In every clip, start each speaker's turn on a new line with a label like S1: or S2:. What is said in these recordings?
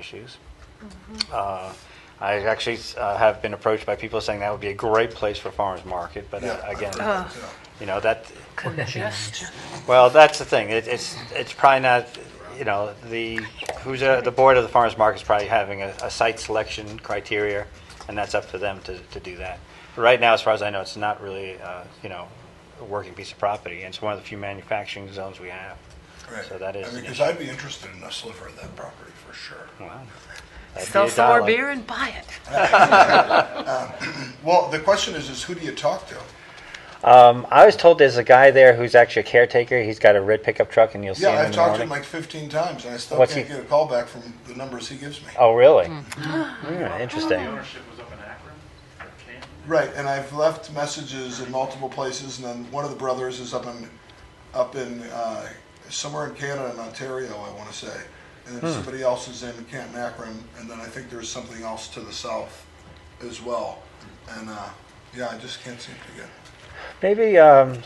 S1: issues. Uh, I actually uh, have been approached by people saying that would be a great place for farmer's market, but uh,
S2: Yeah.
S1: again,
S3: Uh-huh.
S2: Yeah.
S1: you know, that, well, that's the thing, It- it's, it's probably not, you know, the, who's, uh, the board of the farmer's market is probably having a, a site selection criteria, and that's up to them to, to do that. But Right now, as far as I know, it's not really, uh, you know, a working piece of property, and it's one of the few manufacturing zones we have.
S2: Right.
S1: So that is
S2: I
S1: an
S2: mean, because
S1: issue.
S2: I'd be interested in a sliver of that property for sure.
S1: Wow. That'd be
S3: Sell
S1: a
S3: some more
S1: dollar.
S3: beer and buy it.
S2: Well, the question is, is who do you talk to?
S1: Um, I was told there's a guy there who's actually a caretaker. He's got a red pickup truck, and you'll see him
S2: Yeah,
S1: in
S2: I've
S1: the
S2: talked to
S1: morning.
S2: him like 15 times and I still
S1: What's
S2: can't
S1: he-
S2: get a call back from the numbers he gives me.
S1: oh, really? Hmm,
S4: The
S1: interesting.
S4: ownership was up in Akron, or Canton.
S2: Right, and I've left messages in multiple places and then one of the brothers is up in, up in, uh, somewhere in Canada, in Ontario, I want to say. And
S1: Hmm.
S2: then somebody else is in Canton Akron and then I think there's something else to the south as well. And, uh, yeah, I just can't seem to get.
S1: Maybe. Um,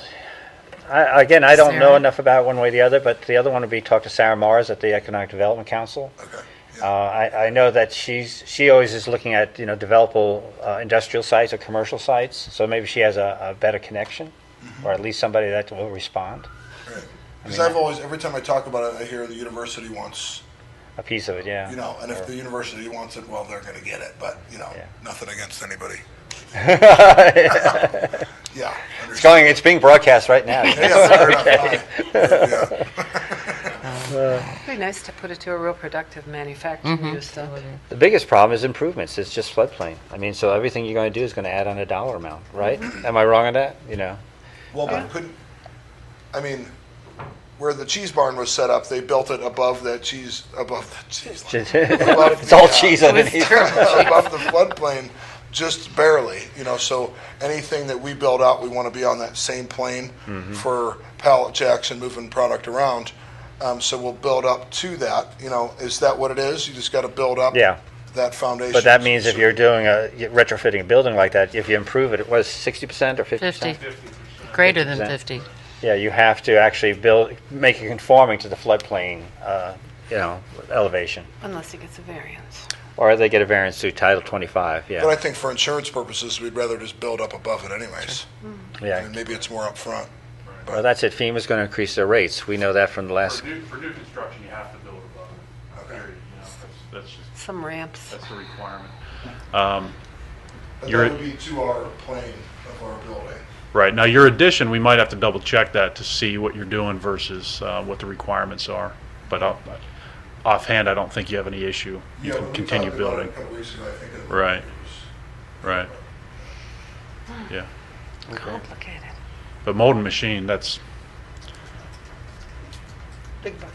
S1: I, again, I don't know
S3: Sarah?
S1: enough about one way or the other, but the other one would be talk to Sarah Mars at the Economic Development Council.
S2: Okay.
S1: Uh, I, I know that she's she always is looking at you know developable uh, industrial sites or commercial sites, so maybe she has a, a better connection,
S2: Mm-hmm.
S1: or at least somebody that will respond
S2: Because I've always, every time I talk about it, I hear the university wants,
S1: a piece of it. Yeah.
S2: you know, and if the university wants it, well, they're going to get it. But you know,
S1: Yeah.
S2: nothing against anybody.
S1: it's
S2: Yeah. understand.
S1: going. It's being broadcast right now.
S2: Yeah, fair enough. Fine. Yeah.
S3: It'd be nice to put it to a real productive
S5: Mm-hmm.
S3: manufacturing use, though.
S1: The biggest problem is improvements. It's just floodplain. I mean, so everything you're going to do is going to add on a dollar amount, right? Am I wrong on that? You know,
S2: Well,
S1: Uh-huh.
S2: but couldn't, I mean, where the cheese barn was set up, they built it above that cheese, above the cheese, line,
S1: it's all cheese underneath.
S2: above the floodplain, just barely. You know, so anything that we build out, we want to be on that same plane
S1: Mm-hmm.
S2: for pallet jacks and moving product around. Um, so we'll build up to that. You know, is that what it is? You just got to build up.
S1: Yeah.
S2: That foundation.
S1: But that means if you're doing a retrofitting a building like that, if you improve it, it was 60% or 50%?
S6: 50, greater than
S1: 50%.
S6: 50.
S1: Yeah, you have to actually build, make it conforming to the floodplain, uh, you know, elevation.
S3: Unless it gets a variance.
S1: Or they get a variance through Title 25,
S2: But I
S1: yeah.
S2: think for insurance purposes, we'd rather just build up above it anyways. I
S1: Yeah.
S2: mean, maybe it's more upfront.
S1: Well, that's it. FEMA's going to increase their rates. We know that from the last
S4: For new, for new construction, you have to build above it, period, you know, that's, that's just,
S3: Some ramps.
S4: that's the requirement. Um,
S2: And
S4: You're-
S2: that would be to our plane of our building.
S4: Right, now your addition, we might have to double check that to see what you're doing versus, uh, what the requirements are. But I'll- but offhand, I don't think you have any issue. You
S2: Yeah, when we
S4: can continue
S2: talked about it
S4: building.
S2: a couple weeks ago, I think it was-
S4: Right. Right. Yeah,
S3: Complicated.
S4: but molding machine, that's,
S3: Big bucks,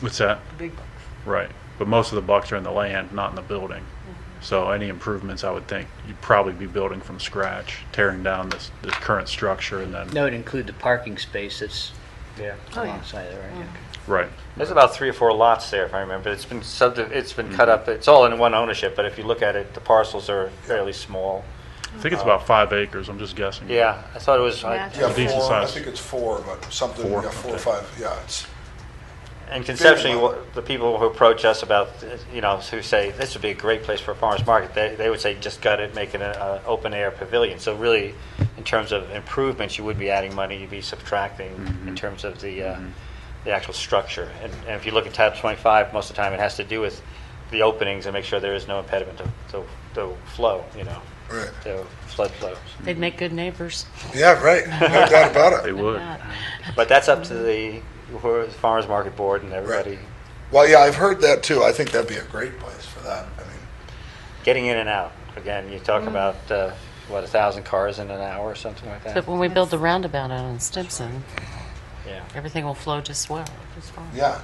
S4: what's that?
S3: big bucks.
S4: Right, but most of the bucks are in the land, not in the building.
S3: Mm-hmm.
S4: So any improvements, I would think, you'd probably be building from scratch, tearing down this, this current structure and then,
S5: No, it'd include the parking space that's
S3: Oh, yeah.
S5: alongside there, right?
S4: right.
S1: There's about three or four lots there, if I remember. It's been sub, it's been cut up, it's all in one ownership, but if you look at it, the parcels are fairly small.
S4: I think it's about five acres, I'm just guessing.
S1: Yeah, I thought it was, like-
S3: Imagine.
S2: Yeah,
S4: Decent
S2: four, I
S4: size.
S2: think it's four, but something,
S4: Four,
S2: yeah, four or
S4: okay.
S2: five, yeah, it's,
S1: and conceptually, what- the people who approach us about, you know, who say, this would be a great place for a farmer's market, they, they would say, just gut it, make it an open-air pavilion. So really, in terms of improvements, you would be adding money, you'd be subtracting in terms of the, uh, the actual structure. And, and if you look at tab 25, most of the time, it has to do with the openings and make sure there is no impediment to, to, to flow, you know,
S2: right.
S1: to flood flows.
S6: They'd make good neighbors.
S2: Yeah, right, no doubt about
S4: They
S2: it.
S4: would.
S1: But that's up to the who- farmers market board and everybody
S2: Well, yeah, I've heard that too, I think that'd be a great place for that, I mean,
S1: getting in and out. Again, you talk about uh, what a thousand cars in an hour or something like that.
S6: But when we build the roundabout out on Stimson,
S1: yeah,
S6: everything will flow just well. just well.
S2: yeah,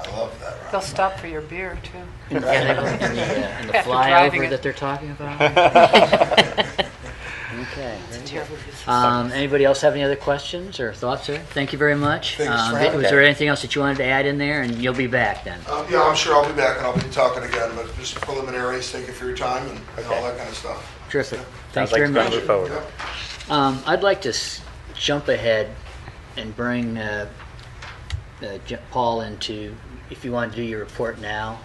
S2: I love that. route.
S3: They'll stop for your beer, too.
S5: Yeah, they were- and the, uh, and the
S3: After driving it.
S5: flyover that they're talking about. Okay.
S3: Terrible business.
S5: Um, anybody else have any other questions or thoughts there? Thank you very much.
S2: Thanks for
S5: Um,
S2: having
S5: Was there anything else that you wanted to add in there? And you'll be back then.
S2: Um, yeah, I'm sure I'll be back and I'll be talking again, but just preliminaries, thank you for your time and and all that kind of stuff.
S5: Terrific.
S1: Sounds
S5: Thanks
S1: like
S5: very
S1: it's gonna
S5: much.
S1: move forward.
S2: Yep.
S5: Um, I'd like to s- jump ahead and bring uh, uh, J- Paul into, if you want to do your report now,